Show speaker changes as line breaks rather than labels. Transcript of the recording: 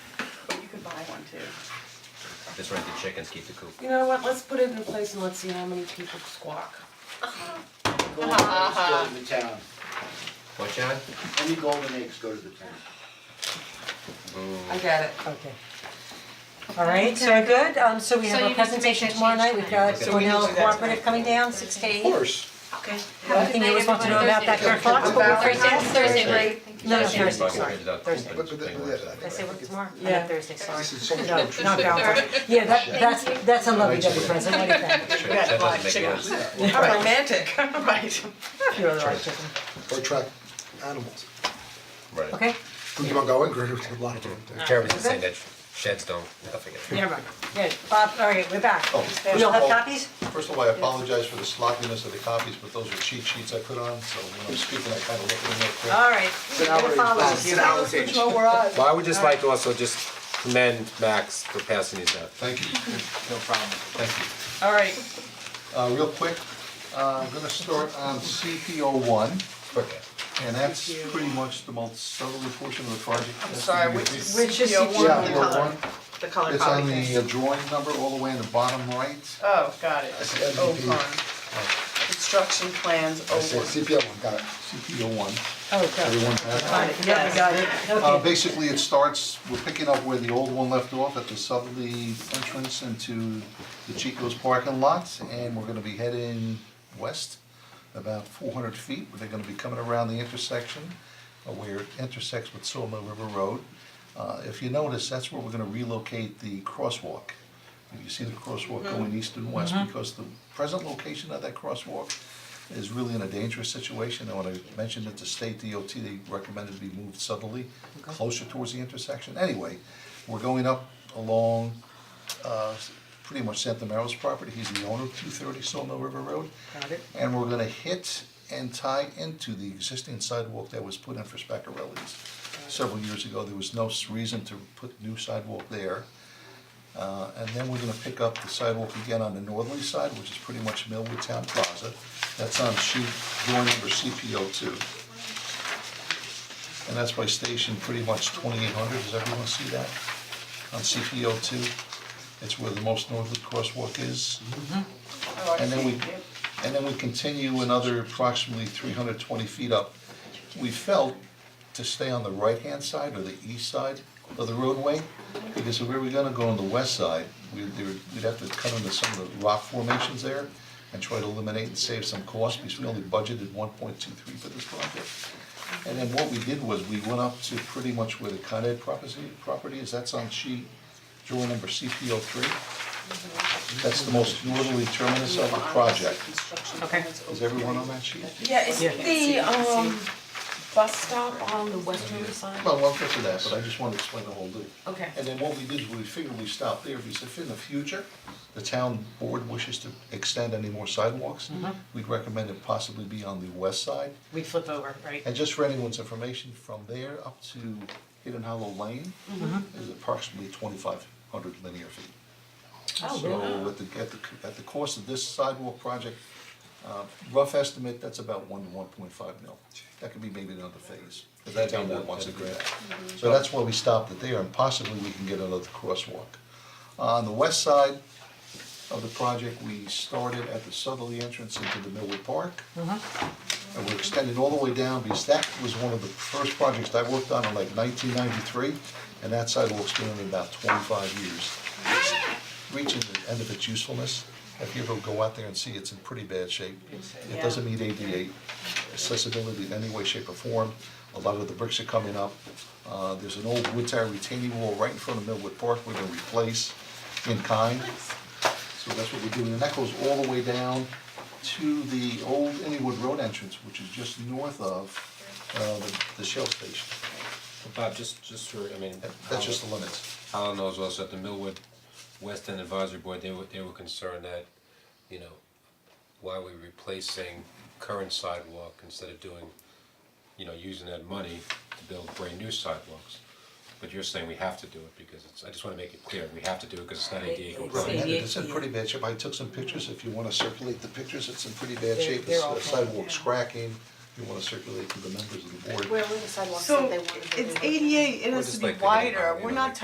buy one too.
Just rent the chickens, keep the coop.
You know what, let's put it in place and let's see how many people squawk.
Golden eggs go to the town,
What, John?
any golden eggs go to the town.
I get it.
Okay. Alright, so we're good, um so we
So
have
you
a
need to make
presentation
that
tomorrow
change
night, we've
tonight.
got
So we need to
Cornell
do that tonight.
Cooperative coming down, six to eight.
Of course.
Okay.
One thing you always want to know about that
Thursday.
current box, but we'll figure it out.
Thursday, right?
No, no, Thursday,
Bucket
sorry,
ended up
Thursday.
cooping
But- but-
thing
yeah,
last
I
night.
Did I say what tomorrow? I
Yeah.
meant Thursday, sorry.
This is so
No,
much.
not Valentine's. Yeah, that that's that's a lovely double present, what do you think?
Sure, that doesn't make any sense.
How romantic.
Right.
You're all right, chicken.
Or track animals.
Right.
Okay,
We keep on going, Gregory, we did a lot of different things.
Karen was just saying that sheds don't, nothing.
never mind. Good, Bob, all right, we're back.
Oh, first
We all
of
have
all-
copies?
First of all, I apologize for the sloppiness of the copies, but those are cheat sheets I put on, so when I'm speaking, I kind of look at them real quick.
All right, we're gonna follow.
Well, I would just like to also just commend Max for passing these out.
Thank you. No problem. Thank you.
Alright,
Uh, real quick, uh, I'm gonna start on CPO one,
Okay.
and that's pretty much the most southerly portion of the project.
I'm sorry, which which E
is
you
the
want
Yeah,
the
well,
color,
E one-
the color
It's on
copy thing.
the uh, drawing number all the way in the bottom right.
Oh, got it.
said
Oh,
MVP.
fine. Construction plans
Oh, I said
over.
CPO one, got it, CPO one,
Oh, God.
everyone has it?
Yeah, we got it.
Uh,
Okay.
basically, it starts, we're picking up where the old one left off at the southerly entrance into the Chico's parking lot, and we're gonna be heading west about four hundred feet, where they're gonna be coming around the intersection, uh, where it intersects with Sawmill River Road. Uh, if you notice, that's where we're gonna relocate the crosswalk. You see the crosswalk going east and west, because the present location of that crosswalk is really in a dangerous situation, and when I mentioned it to state DOT, they recommended it be moved southerly, closer towards the intersection, anyway, we're going up along uh pretty much Santa Mary's property, he's the owner of two thirty Sawmill River Road.
Got it.
And we're gonna hit and tie into the existing sidewalk that was put in for Speckarelli's several years ago, there was no s- reason to put new sidewalk there. Uh, and then we're gonna pick up the sidewalk again on the northerly side, which is pretty much Millwood Town Plaza. That's on sheet drawing number CPO two. And that's by station pretty much twenty-eight hundred, does everyone see that? On CPO two, it's where the most northerly crosswalk is.
Oh,
And then we, and then we continue another approximately three hundred twenty feet up. We felt to stay on the right-hand side or the east side of the roadway, because if we were gonna go on the west side, we, there, we'd have to cut into some of the rock formations there and try to eliminate and save some cost, because we only budgeted one point two three for this project. And then what we did was, we went up to pretty much where the Con Ed property, property is, that's on sheet, drawing number CPO three. That's the most northerly terminus of the project.
Okay.
Is everyone on that sheet?
yeah, is
Yeah.
the um bus stop on the westerly side?
Well, we'll get to that, but I just wanted to explain the whole deal.
Okay.
And then what we did is we figured we stopped there, because if in the future, the town board wishes to extend any more sidewalks, we'd recommend it possibly be on the west side.
We flip over, right?
And just for anyone's information, from there up to Hidden Hollow Lane is approximately twenty-five hundred linear feet.
Oh,
Oh, So at the, at the, at the cost of this sidewalk project, uh, rough estimate, that's about one to one point five mil. That could be maybe another phase, if that town board wants to do that. So that's why we stopped it there, and possibly we can get another crosswalk. On the west side of the project, we started at the southerly entrance into the Millwood Park. And we're extending all the way down, because that was one of the first projects I worked on in like nineteen ninety-three, and that sidewalk's been in about twenty-five years reaching the end of its usefulness. If you ever go out there and see, it's in pretty bad shape. It doesn't meet ADA accessibility in any way, shape or form. A lot of the bricks are coming up. Uh, there's an old wood tire retaining wall right in front of Millwood Park we're gonna replace in kind. So that's what we're doing, and that goes all the way down to the old Inwood Road entrance, which is just north of uh the the Shell station.
Bob, just, just for, I mean,
That- That's just the limits.
Holland knows also at the Millwood West End Advisory Board, they were, they were concerned that, you know, why we're replacing current sidewalk instead of doing, you know, using that money to build brand new sidewalks. But you're saying we have to do it because it's, I just wanna make it clear, we have to do it because it's not ADA
Right,
compliant.
and it's in pretty bad shape, I took some pictures, if you wanna circulate the pictures, it's in pretty bad
They're-
shape,
they're all
the
fine,
sidewalk's cracking, you wanna circulate to the members of the board.
So it's ADA, it
We're
has
just
to be
like thinking about,
wider,
you
we're
know,
not
like-